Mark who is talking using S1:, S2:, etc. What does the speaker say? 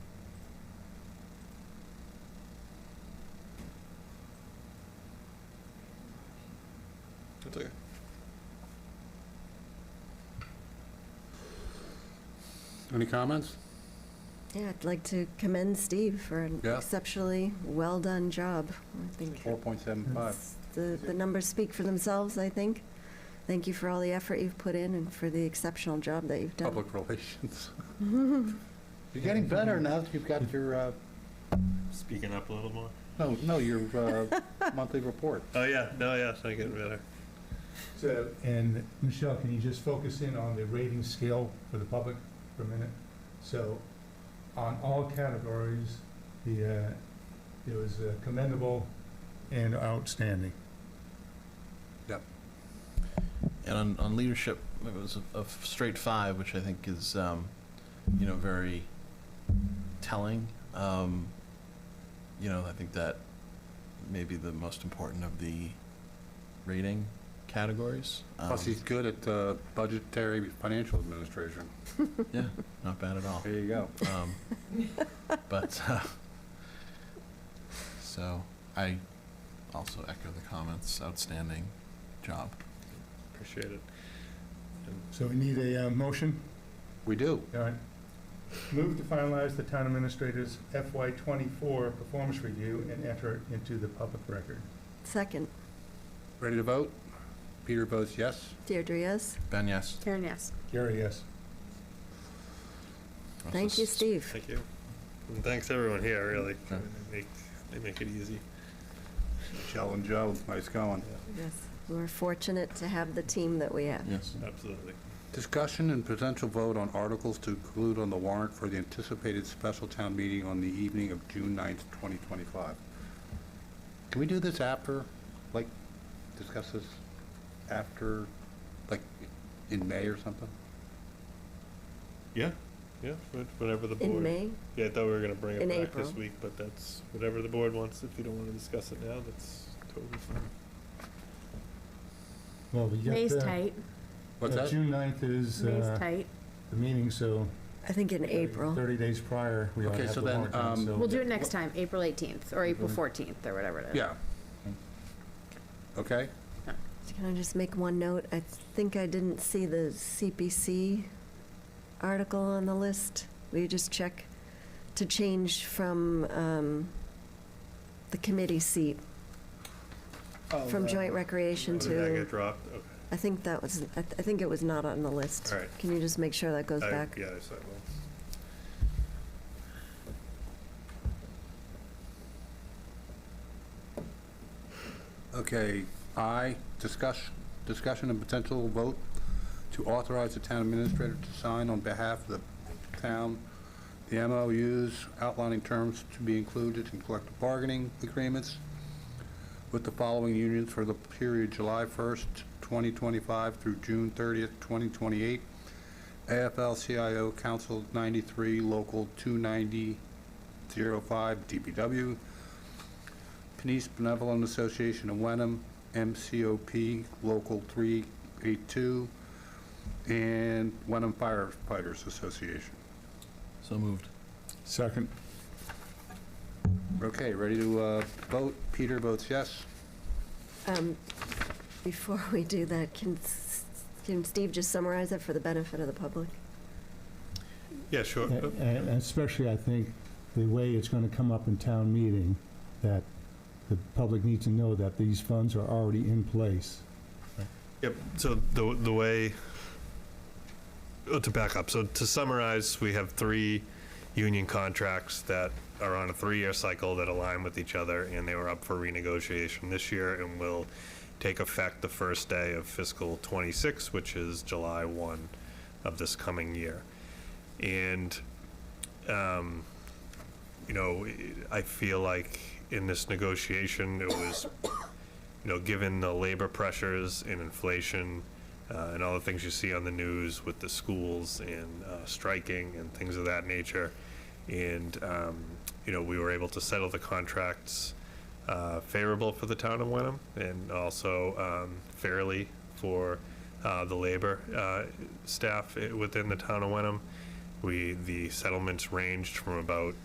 S1: That's okay.
S2: Any comments?
S3: Yeah, I'd like to commend Steve for an
S2: Yeah.
S3: exceptionally well-done job. I think
S2: 4.75.
S3: it's- the, the numbers speak for themselves, I think. Thank you for all the effort you've put in and for the exceptional job that you've done.
S2: Public relations.
S4: You're getting better now that you've got your, uh,
S1: Speaking up a little more.
S4: no, no, your uh, monthly report.
S1: Oh yeah, no, yes, I get better.
S5: So, and Michelle, can you just focus in on the rating scale for the public for a minute? So, on all categories, the, uh, it was uh, commendable and outstanding.
S6: And on, on leadership, it was a, a straight five, which I think is, um, you know, very telling. Um, you know, I think that may be the most important of the rating categories. Um,
S2: Plus, he's good at uh, budgetary financial administration.
S6: yeah, not bad at all.
S2: There you go.
S6: Um, but uh, so I also echo the comments. Outstanding job.
S1: Appreciate it.
S5: So we need a uh, motion?
S2: We do.
S5: All right. Move to finalize the town administrator's FY twenty-four performance review and enter it into the public record.
S3: Second,
S2: Ready to vote? Peter votes yes.
S3: Deirdre, yes?
S6: Ben, yes.
S7: Karen, yes.
S5: Gary, yes.
S3: Thank you,
S6: Steve.
S3: Steve.
S1: Thank you. And thanks everyone here, really.
S6: Yeah.
S1: They make, they make it easy.
S2: Michelle and Joe, nice going.
S3: Yes, we're fortunate to have the team that we have.
S6: Yes.
S1: Absolutely.
S2: Discussion and potential vote on articles to include on the warrant for the anticipated special town meeting on the evening of June 9th, 2025. Can we do this after, like, discuss this after, like, in May or something?
S1: Yeah, yeah, wha- whatever the board.
S3: In May,
S1: Yeah, I thought we were gonna bring
S3: In
S1: it back this
S3: April.
S1: week, but that's whatever the board wants. If you don't wanna discuss it now, that's totally fine.
S5: Well, we got
S7: May's
S5: the-
S7: tight,
S2: What's
S5: uh,
S2: that?
S5: June 9th is
S7: May's
S5: uh,
S7: tight.
S5: the meeting, so
S3: I think in April.
S5: 30 days prior, we ought
S2: Okay,
S5: to have
S2: so
S5: the
S2: then,
S5: warrant done,
S2: um,
S5: so-
S7: We'll do it next time, April 18th, or April 14th, or whatever it is.
S2: Yeah. Okay?
S3: Can I just make one note? I think I didn't see the CPC article on the list. Will you just check to change from um, the committee seat, from joint recreation
S1: Oh, Did Oh, that
S3: to,
S1: get dropped? Okay.
S3: I think that was, I th- I think it was not on the list.
S1: All right.
S3: Can you just make sure that goes
S1: I-
S3: back?
S1: Yeah, so I will.
S2: Okay, I, discuss, discussion and potential vote to authorize the town administrator to sign on behalf of the town the MOUs outlining terms to be included in collective bargaining agreements with the following unions for the period July 1st, 2025 through June 30th, 2028. AFL-CIO Council 93, Local 290-05, DPW, Panisse Benevolent Association of Wenham, MCOP Local 382, and Wenham Firefighters Association.
S6: So moved.
S5: Second.
S2: Okay, ready to uh, vote? Peter votes yes.
S3: Um, Before we do that, can, s- can Steve just summarize it for the benefit of the public?
S1: Yeah, sure.
S8: A-
S1: Uh,
S8: And especially, I think, the way it's going to come up in town meeting, that the public needs to know that these funds are already in place.
S1: Yep, so the, the way, oh, to back up, so to summarize, we have three union contracts that are on a three-year cycle that align with each other, and they were up for renegotiation this year and will take effect the first day of fiscal '26, which is July 1 of this coming year. And um, you know, I feel like in this negotiation, it was, you know, given the labor pressures and inflation uh, and all the things you see on the news with the schools and uh, striking and things of that nature. And, um, you know, we were able to settle the contracts uh, favorable for the town of Wenham and also um, fairly for uh, the labor uh, eh, staff i- within the town of Wenham. We, the settlements ranged from about